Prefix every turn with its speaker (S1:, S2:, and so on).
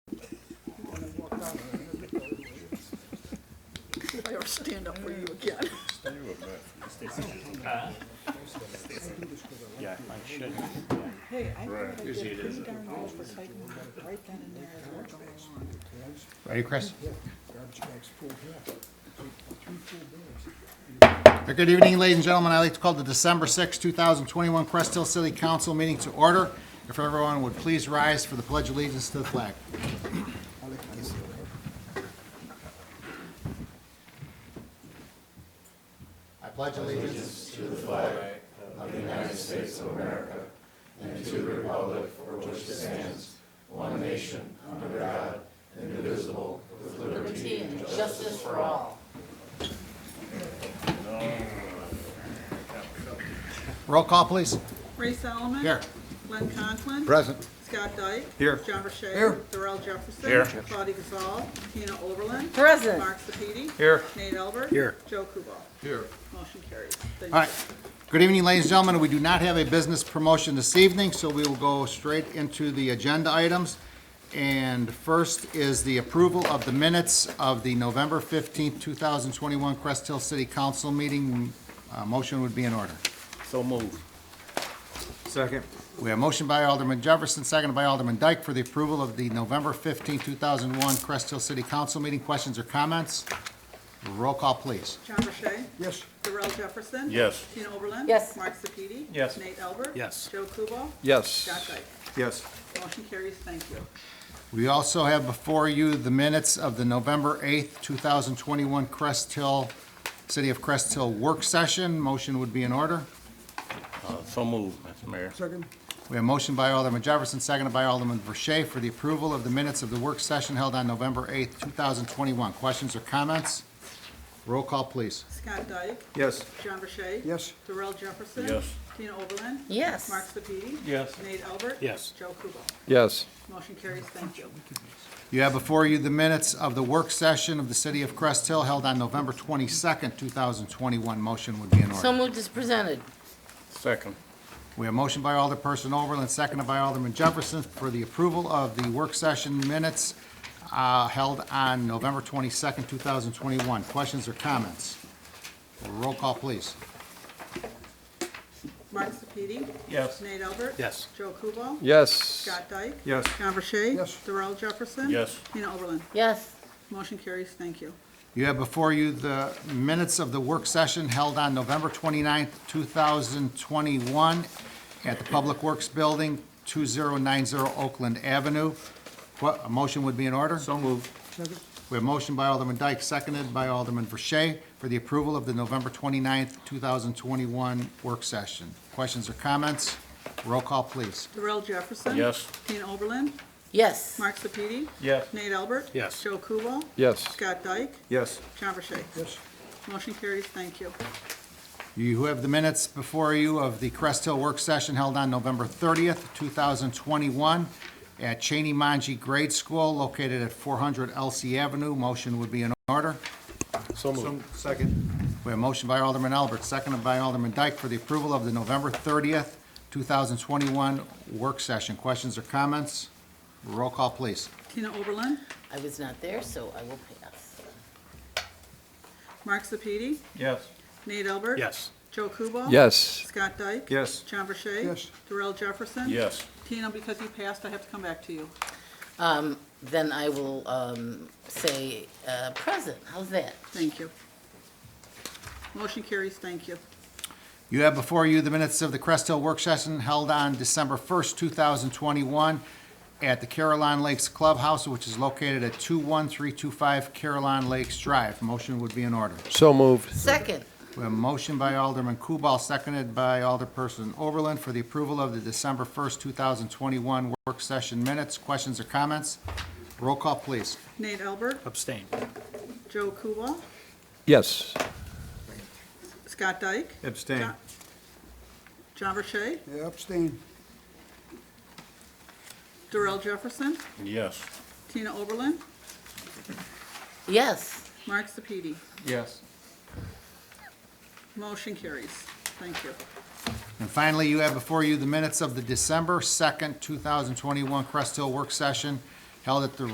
S1: I ever stand up for you again.
S2: Yeah, I should.
S1: Hey, I thought I
S2: Usually
S1: did
S2: it
S1: pretty
S2: isn't.
S1: darn well for citing them right then and there as well as going on.
S3: Ready, Chris?
S4: Garbage bags full here. Three full bags.
S3: Good evening, ladies and gentlemen. I'd like to call the December 6, 2021 Crest Hill City Council meeting to order. If everyone would please rise for the pledge of allegiance to the flag. I pledge allegiance Roll call, please.
S1: Ray Solomon.
S3: Here.
S1: Glenn Conklin.
S3: Present.
S1: Scott Dyke.
S3: Here.
S1: John Rashay.
S3: Here.
S1: Darrell Jefferson.
S2: Here.
S1: Claudia Gazal. Tina Oberlin.
S5: Present.
S1: Mark Sepiti.
S3: Here.
S1: Nate Albert.
S3: Here.
S1: Joe Kubal.
S3: Here.
S1: Motion carries. Thank
S3: All
S1: you.
S3: right. Good evening, ladies and gentlemen. We do not have a business promotion this evening, so we will go straight into the agenda items. And first is the approval of the minutes of the November 15th, 2021 Crest Hill City Council meeting. Uh, Motion would be in order.
S2: So moved. Second.
S3: We have motion by Alderman Jefferson, seconded by Alderman Dyke for the approval of the November 15th, 2001 Crest Hill City Council meeting. Questions or comments? Roll call, please.
S1: John Rashay.
S4: Yes,
S1: Darrell Jefferson.
S2: Yes.
S1: Tina Oberlin.
S5: Yes.
S1: Mark Sepiti.
S2: Yes.
S1: Nate Albert.
S2: Yes.
S1: Joe Kubal. Scott
S2: Yes.
S1: Dyke.
S2: Yes.
S1: Motion carries. Thank you.
S3: We also have before you the minutes of the November 8th, 2021 Crest Hill, City of Crest Hill Work Session. Motion would be in order.
S2: Uh, So moved, Mr. Mayor.
S4: second,
S3: We have motion by Alderman Jefferson, seconded by Alderman Verche for the approval of the minutes of the work session held on November 8th, 2021. Questions or comments? Roll call, please.
S1: Scott Dyke.
S2: Yes.
S1: John Rashay.
S4: yes,
S1: Darrell Jefferson.
S2: Yes.
S1: Tina Oberlin.
S5: Yes.
S1: Mark Sepiti.
S2: Yes.
S1: Nate Albert.
S2: Yes.
S1: Joe Kubal.
S6: Yes,
S1: Motion carries. Thank you.
S3: You have before you the minutes of the work session of the City of Crest Hill held on November 22nd, 2021. Motion would be in order.
S5: So moved as presented.
S2: Second.
S3: We have motion by Alderperson Overland, seconded by Alderman Jefferson for the approval of the work session minutes uh, held on November 22nd, 2021. Questions or comments? Roll call, please.
S1: Mark Sepiti.
S2: Yes.
S1: Nate Albert.
S2: Yes.
S1: Joe Kubal.
S6: yes,
S1: Scott Dyke.
S2: Yes.
S1: John Rashay.
S4: Yes.
S1: Darrell Jefferson.
S2: Yes.
S1: Tina Oberlin.
S5: Yes,
S1: Motion carries. Thank you.
S3: You have before you the minutes of the work session held on November 29th, 2021 at the Public Works Building, 2090 Oakland Avenue. What, a motion would be in order?
S2: So moved.
S4: second,
S3: We have motion by Alderman Dyke, seconded by Alderman Verche for the approval of the November 29th, 2021 work session. Questions or comments? Roll call, please.
S1: Darrell Jefferson.
S2: Yes.
S1: Tina Oberlin.
S5: yes.
S1: Mark Sepiti.
S2: Yes.
S1: Nate Albert.
S2: Yes.
S1: Joe Kubal.
S6: yes,
S1: Scott Dyke.
S2: Yes.
S1: John Rashay.
S4: yes,
S1: Motion carries. Thank you.
S3: You have the minutes before you of the Crest Hill work session held on November 30th, 2021 at Cheney Manji Grade School located at 400 LC Avenue. Motion would be in order.
S2: So moved.
S3: Second. We have motion by Alderman Albert, seconded by Alderman Dyke for the approval of the November 30th, 2021 work session. Questions or comments? Roll call, please.
S1: Tina Oberlin.
S5: I was not there, so I will pass.
S1: Mark Sepiti.
S2: Yes.
S1: Nate Albert.
S2: Yes.
S1: Joe Kubal.
S6: yes,
S1: Scott Dyke.
S2: Yes.
S1: John Verche.
S4: Yes.
S1: Darrell Jefferson.
S2: Yes.
S1: Tina, because you passed, I have to come back to you.
S5: Um, then I will, um, say, uh, present. How's that?
S1: Thank you. Motion carries, thank you.
S3: You have before you the minutes of the Crest Hill work session held on December 1st, 2021 at the Caroline Lakes Clubhouse, which is located at 21325 Caroline Lakes Drive. Motion would be in order.
S6: so moved,
S5: Second,
S3: We have a motion by Alderman Kubal, seconded by Alderperson Oberlin for the approval of the December 1st, 2021 work session minutes. Questions or comments? Roll call, please.
S1: Nate Albert,
S2: Abstain.
S1: Joe Kubal,
S6: yes,
S1: Scott Dyke,
S2: Abstain.
S1: John- John Verche,
S4: Yeah, abstain,
S1: Darrell Jefferson,
S2: Yes.
S1: Tina Oberlin,
S5: yes.
S1: Mark Sepiti.
S2: Yes.
S1: Motion carries, thank you.
S3: And finally, you have before you the minutes of the December 2nd, 2021 Crest Hill work session held at the